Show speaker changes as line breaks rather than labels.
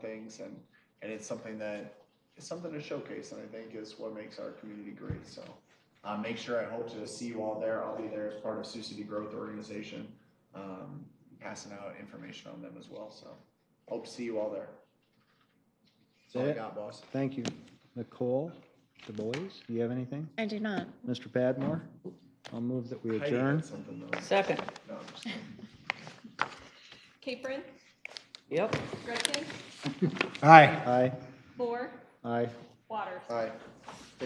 things and, and it's something that, it's something to showcase and I think is what makes our community great, so. Uh, make sure I hope to see you all there. I'll be there as part of Sioux City Growth Organization, um, passing out information on them as well, so. Hope to see you all there. That's all I
That's it.
got, boss.
Thank you. Nicole, the boys, do you have anything?
I do not.
Mr. Padmore, I'll move that we
Heidi had
adjourn.
Something though.
Second.
No, I'm just-
Capron,
Yep.
Gretkin,
Aye. Aye.
Bohr,
Aye.
Waters.
All right.